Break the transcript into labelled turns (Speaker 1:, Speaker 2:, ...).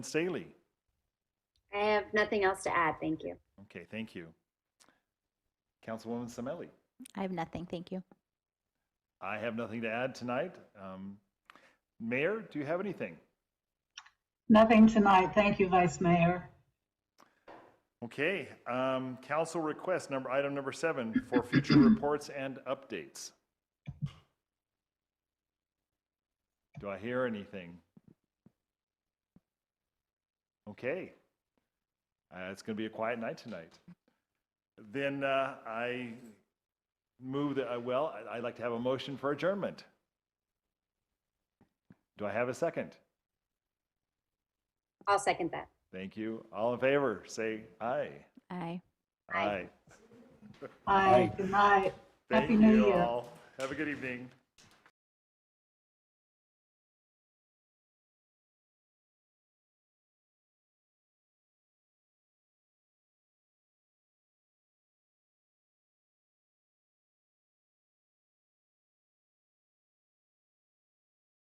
Speaker 1: Staley.
Speaker 2: I have nothing else to add. Thank you.
Speaker 1: Okay, thank you. Councilwoman Semelli.
Speaker 3: I have nothing, thank you.
Speaker 1: I have nothing to add tonight. Um, Mayor, do you have anything?
Speaker 4: Nothing tonight. Thank you, Vice Mayor.
Speaker 1: Okay, um, council request number, item number seven for future reports and updates. Do I hear anything? Okay. Uh, it's going to be a quiet night tonight. Then uh, I move that, uh, well, I- I'd like to have a motion for adjournment. Do I have a second?
Speaker 2: I'll second that.
Speaker 1: Thank you. All in favor, say aye.
Speaker 3: Aye.
Speaker 2: Aye.
Speaker 4: Aye. Good night.
Speaker 1: Thank
Speaker 4: Happy New
Speaker 1: you
Speaker 4: Year.
Speaker 1: all. Have a good evening.